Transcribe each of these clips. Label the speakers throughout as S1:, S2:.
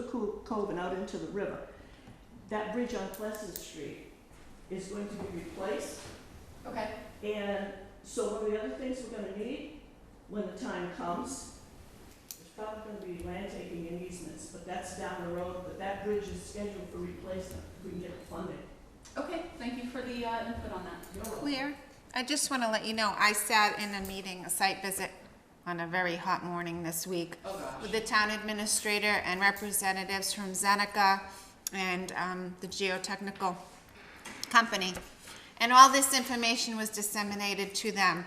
S1: Coo- Cove and out into the river. That bridge on Pleasant Street is going to be replaced.
S2: Okay,
S1: And so one of the other things we're gonna need, when the time comes, is probably gonna be land taking and easements, but that's down the road, but that bridge is scheduled for replacement, if we can get it funded.
S2: okay, thank you for the uh, input on that.
S1: You're welcome.
S3: Clear. I just want to let you know, I sat in a meeting, a site visit, on a very hot morning this week
S2: Oh, gosh.
S3: with the town administrator and representatives from Zeneca and um, the geotechnical company. And all this information was disseminated to them,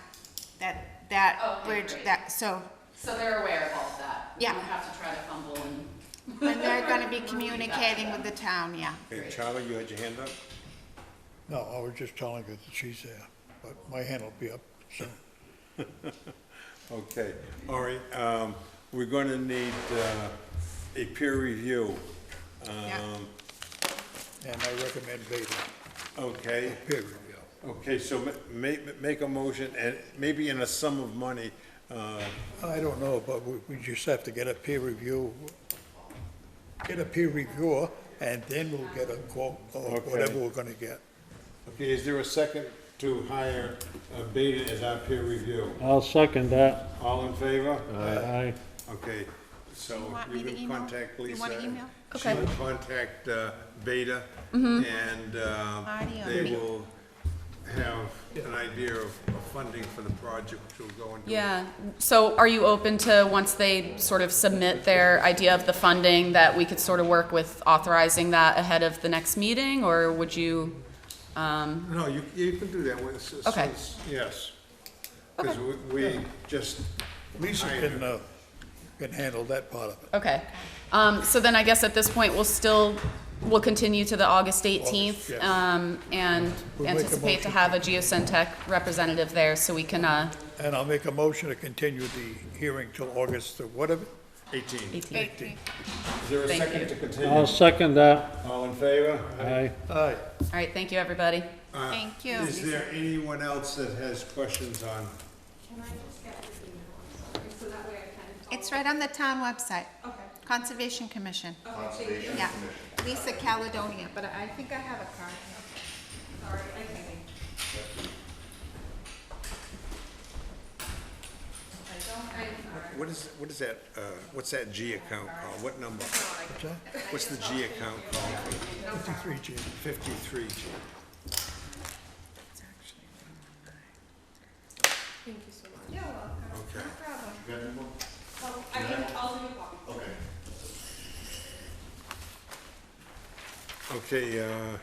S3: that, that
S2: Oh, Okay,
S3: bridge,
S2: great.
S3: that, so,
S2: So they're aware of all of that.
S3: Yeah.
S2: We don't have to try to fumble and.
S3: and they're going to be
S2: Repeat that to
S3: communicating
S2: them.
S3: with the town, yeah.
S4: Okay,
S2: Great.
S4: Charlie, you had your hand up?
S5: No, I was just telling her that she's there, but my hand will be up soon.
S4: Okay, all right, um, we're gonna need, uh, a peer review.
S3: Yeah.
S4: Um,
S5: And I recommend Beta,
S4: okay,
S5: peer review.
S4: okay, so ma- ma- make a motion and maybe in a sum of money, uh,
S5: I don't know, but we, we just have to get a peer review, get a peer reviewer, and then we'll get a quote, or
S4: Okay.
S5: whatever we're gonna get.
S4: okay, is there a second to hire uh, Beta as our peer review?
S6: I'll second that.
S4: All in favor?
S6: Aye.
S4: Okay, so
S3: You want me
S4: you
S3: to
S4: can
S3: email?
S4: contact
S3: You
S4: Lisa.
S3: want to email?
S4: She
S2: Okay. Mm-hmm.
S4: will contact uh, Beta, and uh,
S3: Marty or
S4: they
S3: me?
S4: will have an idea of of funding for the project, which will go into.
S2: Yeah, so are you open to, once they sort of submit their idea of the funding, that we could sort of work with authorizing that ahead of the next meeting, or would you? um,
S4: No, you, you can do that with, s- s-
S2: Okay.
S4: s- yes. Because we just,
S5: Lisa
S4: I-
S5: can, uh, can handle that part of it.
S2: Okay, Um, so then I guess at this point, we'll still, we'll continue to the August 18th,
S5: yes.
S2: um, and
S5: We'll make a
S2: anticipate to
S5: motion.
S2: have a geosynTech representative there, so we can, uh,
S5: And I'll make a motion to continue the hearing till August, or whatever,
S4: 18. Is
S3: Great.
S4: there a
S2: Thank
S4: second
S2: you.
S4: to
S6: I'll
S4: continue?
S6: second that.
S4: All in favor?
S6: Aye.
S5: aye.
S2: all right, thank you, everybody.
S4: Uh,
S3: Thank you.
S4: Is there anyone else that has questions on?
S3: It's right on the town website. Okay. Conservation Commission. Conservation Commission. Lisa Caledonia, but I think I have a card. Sorry,
S4: What is, what is that, uh, what's that G account called? What number? What's the G account called?
S5: Fifty-three G.
S4: 53G.
S7: Thank you so much. You're welcome.
S4: Okay.
S7: No problem.
S2: Well, I mean, I'll do a copy.
S4: Okay, uh,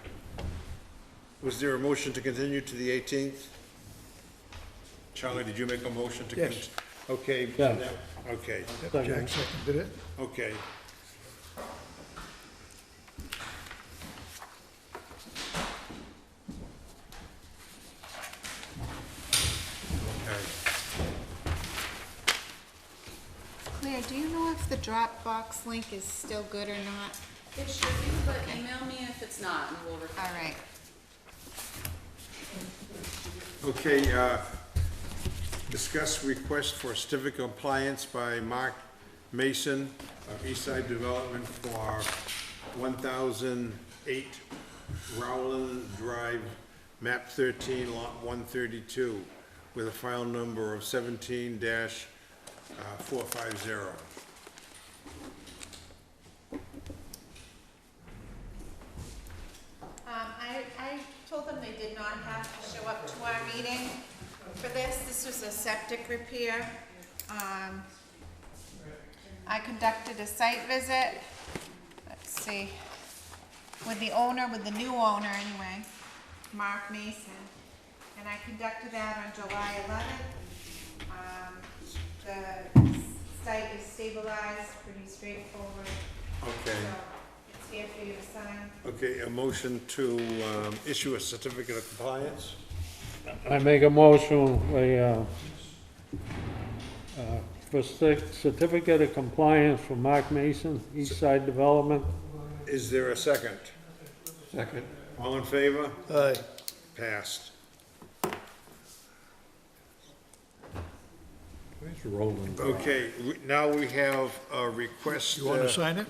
S4: was there a motion to continue to the 18th? Charlie, did you make a motion to?
S5: Yes.
S4: cont- Okay.
S6: Yeah.
S4: now- Okay,
S5: Jack seconded it.
S4: okay. Okay.
S3: Claire, do you know if the Dropbox link is still good or not?
S2: It should be, but email me if it's not, and we'll.
S3: All right.
S4: Okay, uh, discuss request for certificate of compliance by Mark Mason of Eastside Development for 1,008 Rowland Drive, map 13, lot 132, with a file number of uh, 17-450.
S3: Um, I, I told them they did not have to show up to our meeting for this. This was a septic repair. Um, I conducted a site visit, let's see, with the owner, with the new owner anyway, Mark Mason. And I conducted that on July eleventh. Um, the site is stabilized, pretty straightforward, so
S4: Okay,
S3: it's here for you to sign.
S4: okay, a motion to um, issue a certificate of compliance?
S6: I make a motion, we, uh, uh, for cer- certificate of compliance for Mark Mason, East Side Development.
S4: Is there a second? Second. All in favor?
S5: Aye.
S4: Passed.
S8: Where's Roland?
S4: Okay, we- now we have a request.
S5: You wanna
S4: uh,
S5: sign it?